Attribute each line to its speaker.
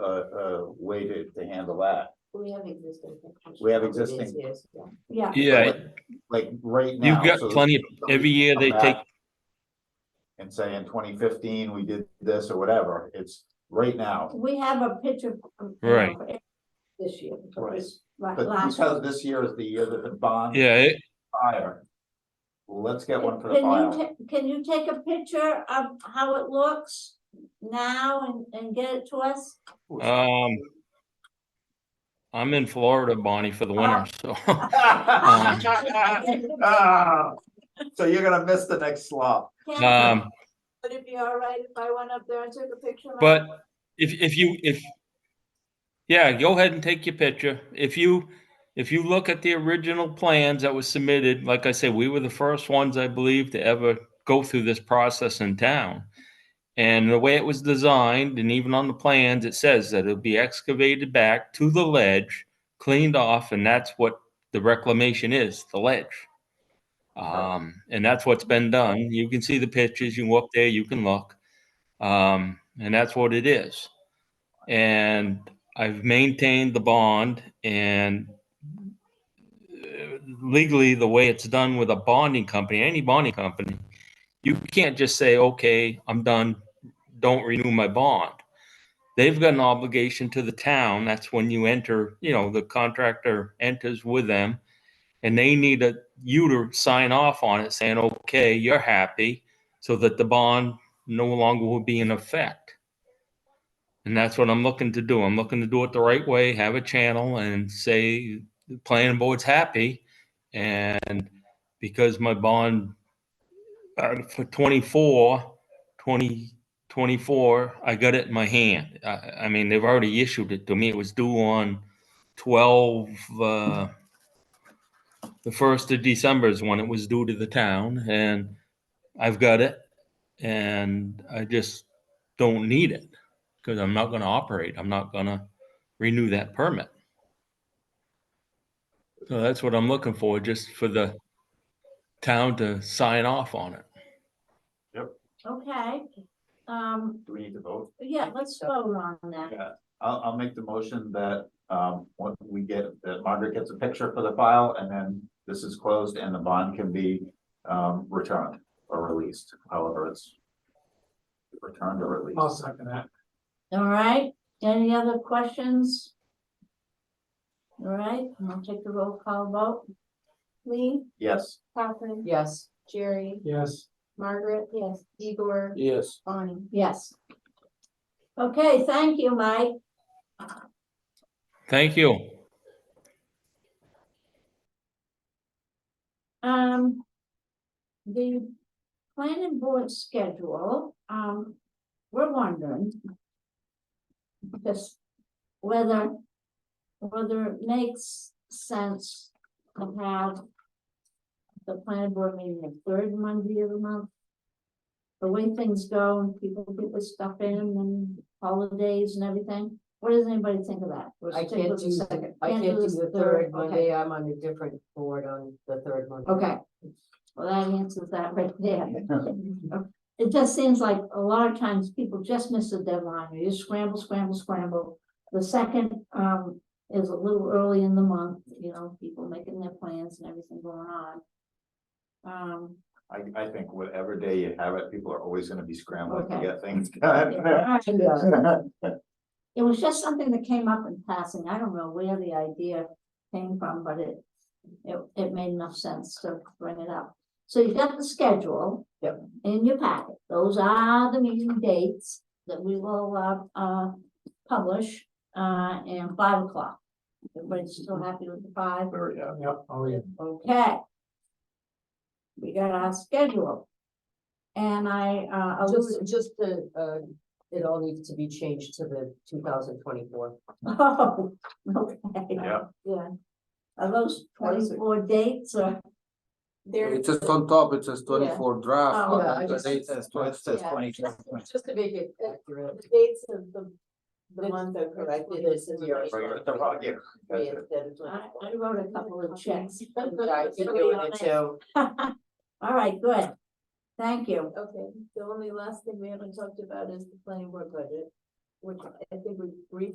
Speaker 1: way to, to handle that.
Speaker 2: We have existing.
Speaker 1: We have existing-
Speaker 2: Yes, yeah. Yeah,
Speaker 3: Yeah,
Speaker 1: Like- Like right now.
Speaker 3: you've got
Speaker 1: so
Speaker 3: plenty of,
Speaker 1: somebody
Speaker 3: every year
Speaker 1: come
Speaker 3: they
Speaker 1: back
Speaker 3: take,
Speaker 1: And say in twenty fifteen, we did this or whatever, it's right now.
Speaker 2: we have a picture. um, you know,
Speaker 3: Right.
Speaker 2: for This year. for
Speaker 1: Right.
Speaker 2: this la-
Speaker 1: But
Speaker 2: last
Speaker 1: because this year is the year that the bond
Speaker 3: yeah, it-
Speaker 1: fire. Let's get one for the
Speaker 2: Can you
Speaker 1: file.
Speaker 2: ta- Can you take a picture of how it looks now and, and get it to us?
Speaker 3: um. I'm in Florida, Bonnie, for the
Speaker 2: Uh,
Speaker 3: winter, so, Um,
Speaker 1: Ah, So you're gonna miss the next slot.
Speaker 2: Can-
Speaker 3: um,
Speaker 2: Would it be all right if I went up there and took a picture? of it?
Speaker 3: but if, if you, if. Yeah, go ahead and take your picture. If you, if you look at the original plans that was submitted, like I said, we were the first ones, I believe, to ever go through this process in town. And the way it was designed, and even on the plans, it says that it'll be excavated back to the ledge, cleaned off, and that's what the reclamation is, the ledge. Um, and that's what's been done. You can see the pictures, you can walk there, you can look. Um, and that's what it is. And I've maintained the bond and uh, legally, the way it's done with a bonding company, any bonding company, you can't just say, okay, I'm done, don't renew my bond. They've got an obligation to the town. That's when you enter, you know, the contractor enters with them. And they need a, you to sign off on it saying, okay, you're happy, so that the bond no longer will be in effect. And that's what I'm looking to do. I'm looking to do it the right way, have a channel and say, the planning board's happy. And because my bond uh, for 24, 20, 24, I got it in my hand. I, I mean, they've already issued it to me. It was due on 12, uh, the 1st of December is when it was due to the town and I've got it. And I just don't need it because I'm not going to operate. I'm not going to renew that permit. So that's what I'm looking for, just for the town to sign off on it.
Speaker 2: Okay, um,
Speaker 1: Do we need to vote?
Speaker 2: yeah, let's vote on that.
Speaker 1: Yeah, I'll, I'll make the motion that, um, what we get, that Margaret gets a picture for the file and then this is closed and the bond can be, um, returned or released, however it's returned or released.
Speaker 4: I'll second that.
Speaker 2: All right, any other questions? All right, I'll take the roll call vote.
Speaker 5: Lee,
Speaker 1: Yes,
Speaker 5: Catherine,
Speaker 2: Yes.
Speaker 5: Jerry,
Speaker 4: Yes.
Speaker 5: Margaret. Yes. Igor,
Speaker 4: Yes.
Speaker 5: Bonnie.
Speaker 2: Yes. Okay, thank you, Mike.
Speaker 3: Thank you.
Speaker 2: Um. The planning board schedule, um, we're wondering. Just whether, whether it makes sense to have. The planning board meeting the third Monday of the month. The way things go and people get their stuff in and holidays and everything, what does anybody think of that? We'll
Speaker 6: I
Speaker 2: stick
Speaker 6: can't
Speaker 2: with the
Speaker 6: do, the-
Speaker 2: second.
Speaker 6: I
Speaker 2: Can't
Speaker 6: can't do
Speaker 2: this
Speaker 6: the third
Speaker 2: okay.
Speaker 6: Monday, I'm on a different board on the third Monday.
Speaker 2: Okay, well, that answers that right there. It just seems like a lot of times people just miss the deadline, you just scramble, scramble, scramble. The second, um, is a little early in the month, you know, people making their plans and everything going on. Um,
Speaker 1: I, I think whatever day you have it, people are always gonna be scrambling to
Speaker 2: Okay.
Speaker 1: get things
Speaker 2: yeah,
Speaker 1: done.
Speaker 2: all right.
Speaker 6: Yeah,
Speaker 2: It was just something that came up in passing, I don't know where the idea came from, but it, it, it made enough sense to bring it up. So you've got the schedule.
Speaker 6: Yep.
Speaker 2: In your packet, those are the meeting dates that we will, uh, uh, publish, uh, and five o'clock. Everybody's still happy with the five?
Speaker 1: Very, uh,
Speaker 4: Yep, oh yeah.
Speaker 2: Okay. We got our schedule. And I, uh, I'll just,
Speaker 6: Just, just the, uh, it all needs to be changed to the two thousand twenty-four.
Speaker 2: oh, okay.
Speaker 1: Yeah.
Speaker 2: Yeah. Are those twenty-four dates or?
Speaker 5: There,
Speaker 7: It's just on top, it says twenty-four draft.
Speaker 2: Oh,
Speaker 7: but
Speaker 6: yeah, I
Speaker 7: the
Speaker 6: just-
Speaker 7: date says 20 says
Speaker 5: Yeah.
Speaker 7: 22.
Speaker 5: just to make it, uh,
Speaker 6: Accurate.
Speaker 5: the dates of the, the
Speaker 6: It's-
Speaker 5: month are corrected.
Speaker 6: it's the year.
Speaker 1: Right, you're at the wrong year. That's it.
Speaker 2: I, I wrote a couple of checks.
Speaker 6: I keep doing it too.
Speaker 2: All right, good. Thank you.
Speaker 5: Okay, the only last thing we haven't talked about is the planning board budget, which I think we briefly